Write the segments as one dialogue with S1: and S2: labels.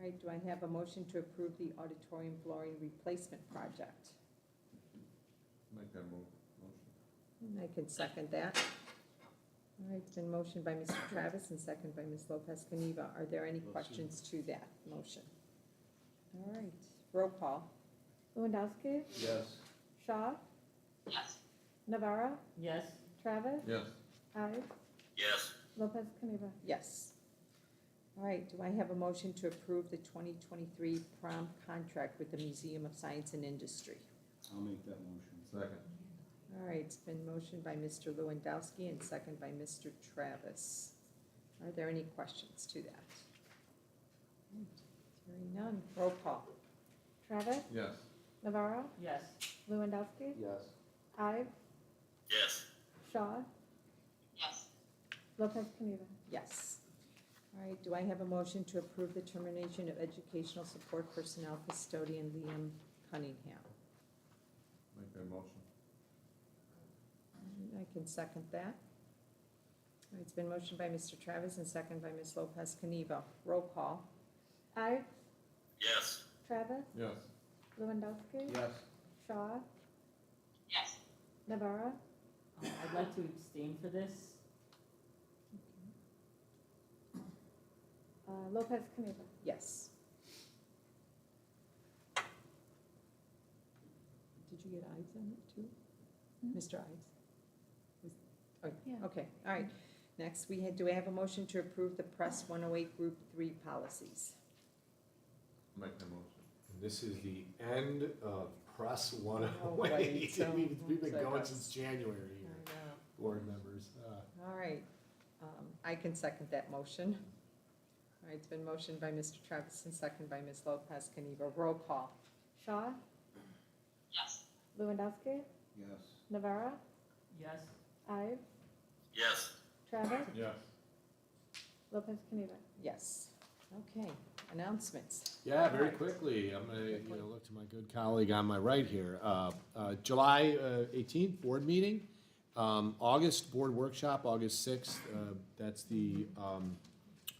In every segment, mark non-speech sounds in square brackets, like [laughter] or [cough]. S1: right, do I have a motion to approve the auditorium flooring replacement project?
S2: Make that mo- motion.
S1: And I can second that. All right, it's been motioned by Mr. Travis and second by Ms. Lopez Caniva. Are there any
S3: Motion.
S1: questions to that motion? All right, roll call.
S4: Lewandowski,
S3: Yes.
S4: Shaw,
S5: yes,
S4: Navarro,
S6: yes,
S4: Travis,
S2: Yes,
S4: Ives,
S7: yes,
S4: Lopez Caniva.
S1: Yes. All right, do I have a motion to approve the 2023 prom contract with the Museum of Science and Industry?
S3: I'll make that motion.
S2: second.
S1: All right, it's been motioned by Mr. Lewandowski and second by Mr. Travis. Are there any questions to that? Hearing none, roll call.
S4: Travis,
S2: Yes,
S4: Navarro,
S6: yes,
S4: Lewandowski,
S3: Yes.
S4: Ives,
S7: yes,
S4: Shaw,
S5: yes,
S4: Lopez Caniva.
S1: Yes. All right, do I have a motion to approve the termination of educational support personnel custodian Liam Cunningham?
S2: make that motion.
S1: I can second that. All right, It's been motioned by Mr. Travis and second by Ms. Lopez Caniva. Roll call.
S4: Ives,
S7: yes,
S4: Travis,
S2: Yes.
S4: Lewandowski,
S3: Yes.
S4: Shaw,
S5: yes.
S4: Navarro,
S6: Um, I'd like to abstain for this,
S4: uh, Lopez Caniva.
S1: Yes. Did you get Ives on it too?
S4: Mhm.
S1: Mr. Ives? Was- oh,
S4: Yeah.
S1: Okay, all right. Next, we had, do I have a motion to approve the Press 108 Group 3 policies?
S2: Make that motion.
S8: And This is the end of uh, press one [laughs]
S1: Oh,
S8: oh
S1: wait,
S8: eight.
S1: so-
S8: We've, we've been
S1: so
S8: going
S1: that's-
S8: since January here, board members. Uh,
S1: All right, um, I can second that motion. All right, it's been motioned by Mr. Travis and second by Ms. Lopez Caniva. Roll call.
S4: Shaw,
S5: Yes,
S4: Lewandowski,
S3: Yes.
S4: Navarro,
S6: yes,
S4: Ives,
S7: yes,
S4: Travis,
S2: Yes.
S4: Lopez Caniva.
S1: Yes. Okay, announcements.
S8: Yeah, very
S1: Right.
S8: quickly, I'm gonna,
S1: Good
S8: you know,
S1: point.
S8: look to my good colleague on my right here. Uh, uh, July eighteenth, board meeting. Um, August, board workshop, August sixth, uh, that's the, um,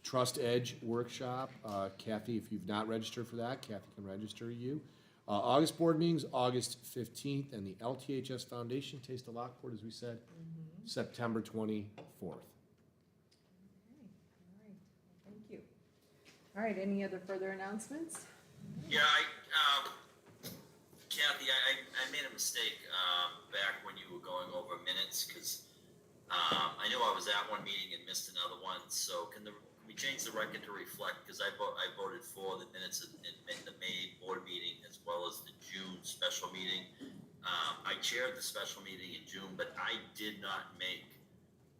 S8: Trust Edge workshop. Uh, Kathy, if you've not registered for that, Kathy can register you. Uh, August board meetings, August fifteenth, and the LTHS Foundation Taste of Lockport, as we said, September twenty-fourth.
S1: All right, thank you. All right, any other further announcements?
S7: yeah, I, um, Kathy, I, I I made a mistake, um, back when you were going over minutes, cause, um, I knew I was at one meeting and missed another one, so can the, can we change the record to reflect, cause I vo- I voted for the minutes in, in in the May board meeting as well as the June special meeting. Um, I chaired the special meeting in June, but I did not make,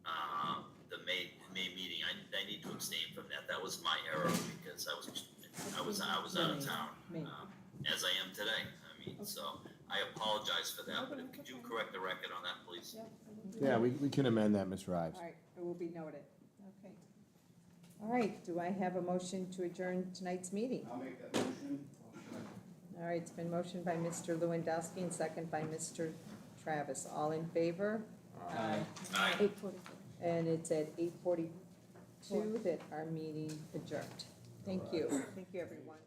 S7: um, the May, May meeting, I, I need to abstain from that, that was my error, because I was, I was, I was out of town,
S1: May.
S7: um, as I am today, I mean, so, I apologize for that, but if- could you correct the record on that, please?
S4: Yep.
S8: Yeah, we, we can amend that, Ms. Rives.
S1: All right, it will be noted. Okay. All right, do I have a motion to adjourn tonight's meeting?
S3: I'll make that motion.
S1: All right, it's been motioned by Mr. Lewandowski and second by Mr. Travis. All in favor? Aye.
S7: Aye.
S4: Eight forty-four.
S1: And it's at eight forty-two that our meeting adjourned. Thank you. Thank you, everyone.